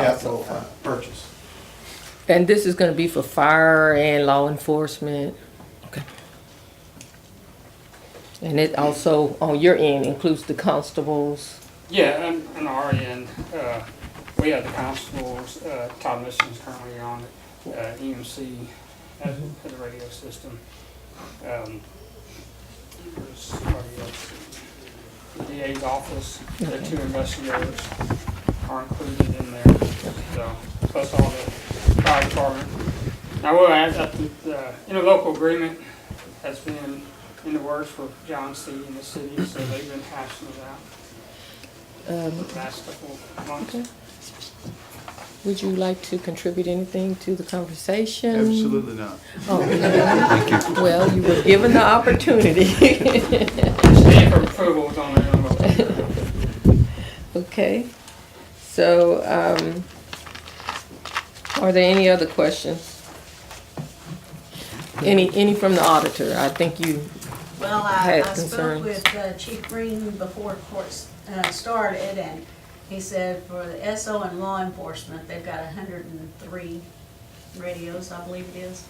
capital purchase. And this is gonna be for fire and law enforcement? Okay. And it also, on your end, includes the constables? Yeah, on, on our end, uh, we have the constables, uh, Todd Mission's currently on, uh, EMC as, as a radio system. Um, there's somebody else. The DA's office, the two investigators are included in there, so, plus all the fire department. Now, we'll add that the, uh, interlocal agreement has been in the works for John C. and the city, so they've been hashing it out Um, the last couple of months. okay. Would you like to contribute anything to the conversation? Absolutely not. Oh, Well, you were given the opportunity. Stand for approval is on there. Okay, so, um, are there any other questions? Any, any from the auditor? I think you, Well, I, had I spoke concerns. with uh, Chief Green before court s- uh, started, and he said for the SO and law enforcement, they've got hundred and three radios, I believe it is.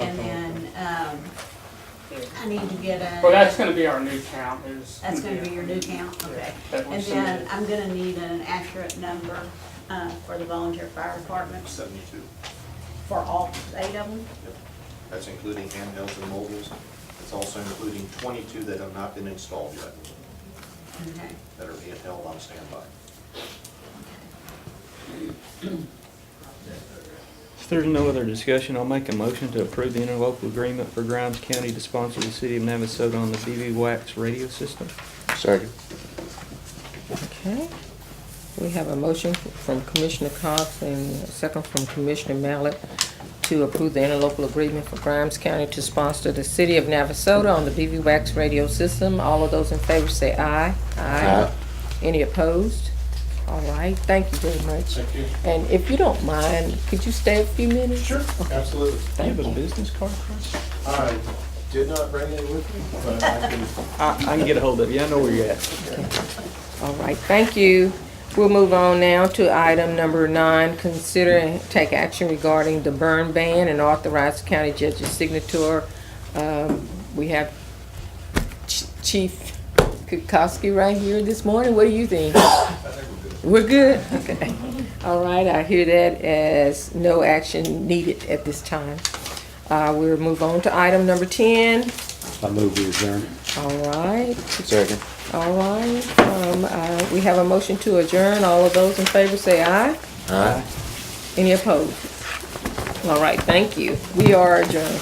And then, um, I need to get Well, a, that's gonna be our new count is. that's gonna be your new count, okay. That we And then submitted. I'm gonna need an accurate number, uh, for the volunteer fire departments, Seventy-two. for all eight of them. That's including handhelds and mobiles. It's also including 22 that have not been installed yet, Okay. that are being held on standby. If there's no other discussion, I'll make a motion to approve the interlocal agreement for Grimes County to sponsor the city of Navasota on the BB Wax radio system. Second. okay. We have a motion from Commissioner Cox and a second from Commissioner Mallett to approve the interlocal agreement for Grimes County to sponsor the city of Navasota on the BB Wax radio system. All of those in favor say aye. Aye. Any opposed? All right, thank you very much. Thank you. And if you don't mind, could you stay a few minutes? Sure, absolutely. Do you have a Thank you. business card, Chris? I did not bring it with me, but I can I, I can get a hold of you. I know where you're at. All right, thank you. We'll move on now to item number nine, consider and take action regarding the burn ban and authorize the county judge's signature. Um, We have Ch- Chief Kukowski right here this morning. What do you think? We're good? Okay. All right, I hear that as no action needed at this time. Uh, We'll move on to item number 10. I move we adjourn. All right. Second. All right, um, uh, we have a motion to adjourn. All of those in favor say aye. Aye. Any opposed? All right, thank you. We are adjourned.